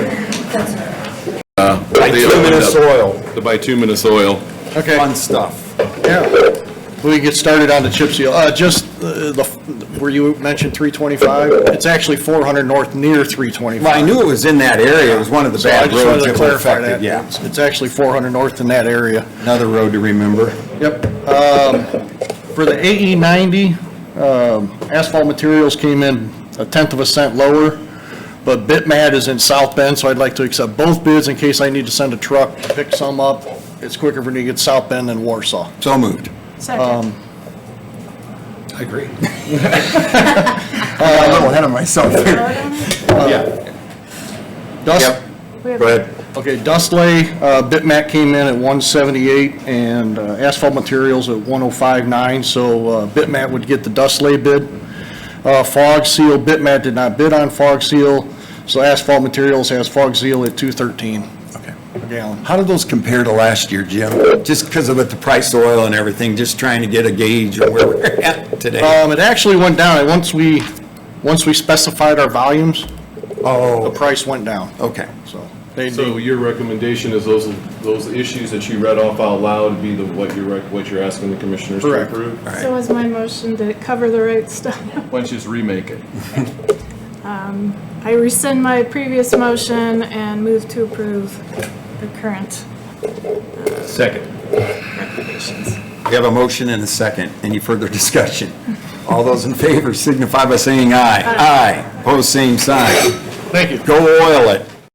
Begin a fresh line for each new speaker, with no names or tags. Bituminous soil.
The bituminous oil.
Okay.
Fun stuff.
Yeah, we get started on the chip seal. Uh, just, uh, the, where you mentioned 325, it's actually 400 north near 325.
Well, I knew it was in that area, it was one of the
So I
bad
just
roads
wanted to
that were
clarify
affected,
that.
yeah.
It's- It's actually 400 north in that area.
Another road to remember.
Yep. For the AE 90, um, asphalt materials came in a tenth of a cent lower, but Bitmat is in South Bend, so I'd like to accept both bids in case I need to send a truck, to pick some up. It's quicker for me to get South Bend than Warsaw.
So moved. Um,
Second.
I agree. I'm a little ahead of myself here. Yeah.
Dust,
Yep,
We have-
go ahead.
okay, Dustley, uh, Bitmat came in at 178 and uh, asphalt materials at 105.9, so uh, Bitmat would get the Dustley bid. Uh, Fog Seal, Bitmat did not bid on Fog Seal, so asphalt materials has Fog Seal at 213
Okay.
a gallon.
How do those compare to last year, Jim? Just because of what the price of oil and everything, just trying to get a gauge of where we're at today.
Um, It actually went down, and once we, once we specified our volumes, the
Oh,
price went down,
okay.
so. they-
So your recommendation is those, those issues that you read off out loud be the, what you're, rec- what you're asking the commissioners to
Correct.
approve?
All
So
right.
is my motion to cover the right stuff.
Why don't you just remake it?
I rescind my previous motion and move to approve the current
Second.
recommendations.
We have a motion and a second. Any further discussion? All those in favor signify by saying aye. Aye. Opposed, same sign.
Thank you.
Go oil it.